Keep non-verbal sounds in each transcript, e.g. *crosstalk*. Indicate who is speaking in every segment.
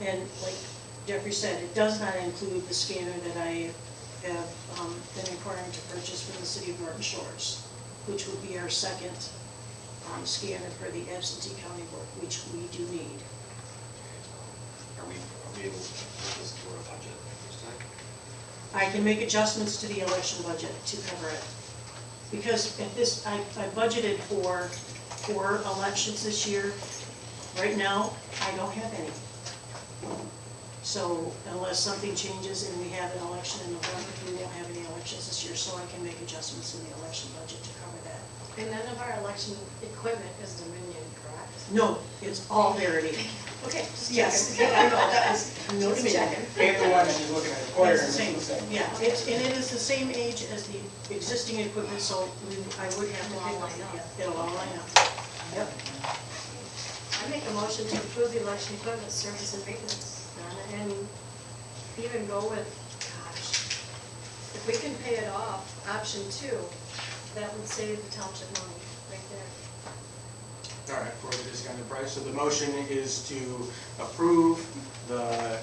Speaker 1: And like Jeffrey said, it does not include the scanner that I have um, been inquiring to purchase from the city of Norton Shores, which would be our second um, scanner for the absentee county work, which we do need.
Speaker 2: Are we, are we able to put this through our budget next time?
Speaker 1: I can make adjustments to the election budget to cover it. Because at this, I, I budgeted for four elections this year. Right now, I don't have any. So unless something changes and we have an election in November, we won't have any elections this year, so I can make adjustments in the election budget to cover that.
Speaker 3: And none of our election equipment is Dominion, correct?
Speaker 1: No, it's all Verity.
Speaker 3: Okay, just
Speaker 1: Yes,
Speaker 3: *laughs* checking.
Speaker 1: yeah, I know, that *laughs* was, no
Speaker 3: Just
Speaker 1: Dominion.
Speaker 3: checking.
Speaker 4: Paper one, and you're looking at the quarter,
Speaker 1: It's
Speaker 4: and
Speaker 1: the
Speaker 4: it's
Speaker 1: same,
Speaker 4: the same.
Speaker 1: yeah, it's, and it is the same age as the existing equipment, so we, I would have to
Speaker 3: It'll all
Speaker 1: pick one,
Speaker 3: line up.
Speaker 1: yeah, it'll all line up. Yep,
Speaker 3: I make a motion to approve the election equipment service and maintenance, Donna, and even go with, gosh, if we can pay it off, option two, that would save the township money right there.
Speaker 4: All right, further discussion on the price. So the motion is to approve the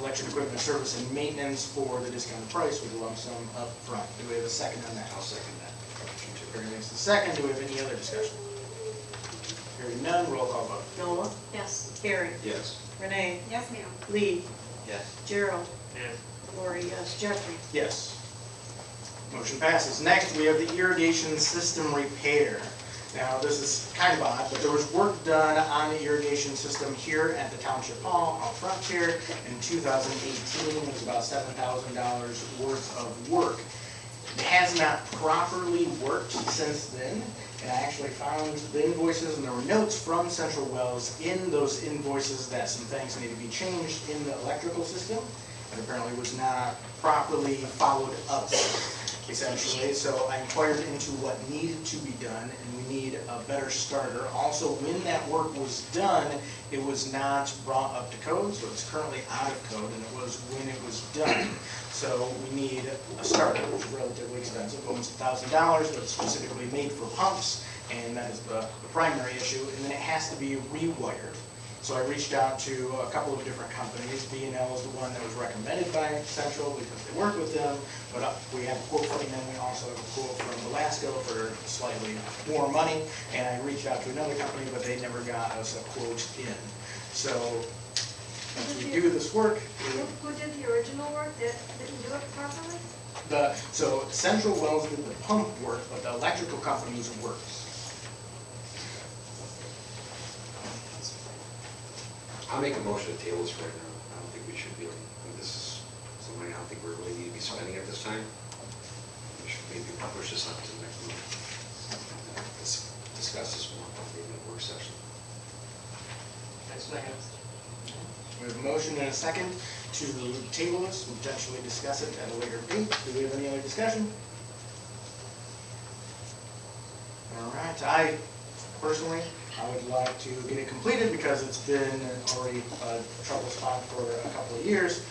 Speaker 4: election equipment service and maintenance for the discounted price with a lump sum up front. Do we have a second on that?
Speaker 2: I'll second that. Option two.
Speaker 4: Barry makes the second. Do we have any other discussion? Hearing none, roll call vote.
Speaker 1: Noah,
Speaker 3: Yes.
Speaker 1: Carrie,
Speaker 2: Yes.
Speaker 1: Renee,
Speaker 3: Yes, ma'am.
Speaker 1: Lee,
Speaker 2: Yes.
Speaker 1: Gerald. Lori, yes, Jeffrey.
Speaker 4: Yes. Motion passes. Next, we have the irrigation system repair. Now, this is kind of odd, but there was work done on the irrigation system here at the Township Hall out front here in 2018. It was about $7,000 worth of work. It has not properly worked since then, and I actually found the invoices, and there were notes from Central Wells in those invoices that some things need to be changed in the electrical system, that apparently was not properly followed up essentially. So I inquired into what needed to be done, and we need a better starter. Also, when that work was done, it was not brought up to code, so it's currently out of code, and it was when it was done. So we need a starter, which is relatively expensive, almost a thousand dollars, but it's specifically made for pumps, and that is the the primary issue, and then it has to be rewired. So I reached out to a couple of different companies. B and L is the one that was recommended by Central because they work with them. But uh, we have a quote from them, we also have a quote from Velasco for slightly more money. And I reached out to another company, but they never got us a quote in. So once we do this work,
Speaker 3: Who,
Speaker 4: we-
Speaker 3: who did the original work that didn't do it properly?
Speaker 4: the, so Central Wells did the pump work, but the electrical companies worked.
Speaker 2: I'll make a motion to table this right now. I don't think we should be, I think this is some money I don't think we really need to be spending at this time. We should maybe push this up to the next meeting. Let's Discuss this more, maybe in a work session.
Speaker 4: We have a motion and a second to table this and potentially discuss it at a later date. Do we have any other discussion? All right, I personally, I would like to get it completed because it's been already a trouble spot for a couple of years.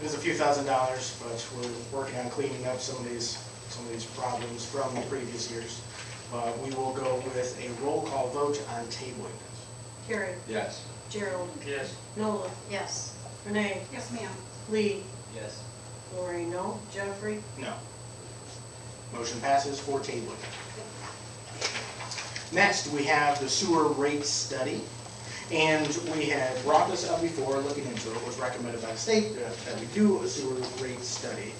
Speaker 4: It is a few thousand dollars, but we're working on cleaning up some of these, some of these problems from the previous years. But we will go with a roll call vote on tabling this.
Speaker 1: Carrie,
Speaker 2: Yes.
Speaker 1: Gerald,
Speaker 5: Yes.
Speaker 1: Noah,
Speaker 3: Yes.
Speaker 1: Renee,
Speaker 3: Yes, ma'am.
Speaker 1: Lee,
Speaker 5: Yes.
Speaker 1: Lori, no, Jeffrey.
Speaker 4: No. Motion passes for tabling. Next, we have the sewer rate study. And we had brought this up before, looking into it, it was recommended by the state that that we do a sewer rate study.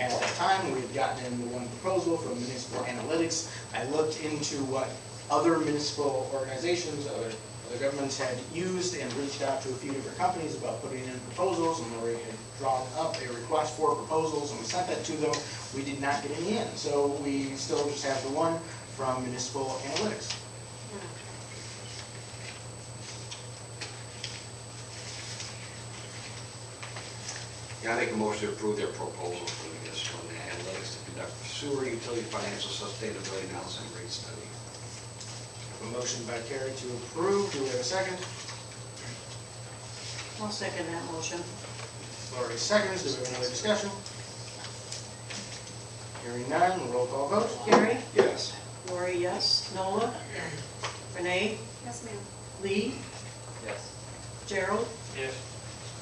Speaker 4: At that time, we had gotten in the one proposal from Municipal Analytics. I looked into what other municipal organizations, other, other governments had used and reached out to a few different companies about putting in proposals, and Lori had drawn up a request for proposals, and we sent that to them. We did not get any in, so we still just have the one from Municipal Analytics.
Speaker 2: Yeah, I make a motion to approve their proposal for the municipal analytics to conduct sewer utility financial sustainability analysis and rate study.
Speaker 4: A motion by Carrie to approve, do we have a second?
Speaker 1: I'll second that motion.
Speaker 4: Lori seconds, do we have another discussion? Hearing none, roll call vote.
Speaker 1: Carrie,
Speaker 2: Yes.
Speaker 1: Lori, yes, Noah, Renee,
Speaker 3: Yes, ma'am.
Speaker 1: Lee,
Speaker 5: Yes.
Speaker 1: Gerald,
Speaker 5: Yes.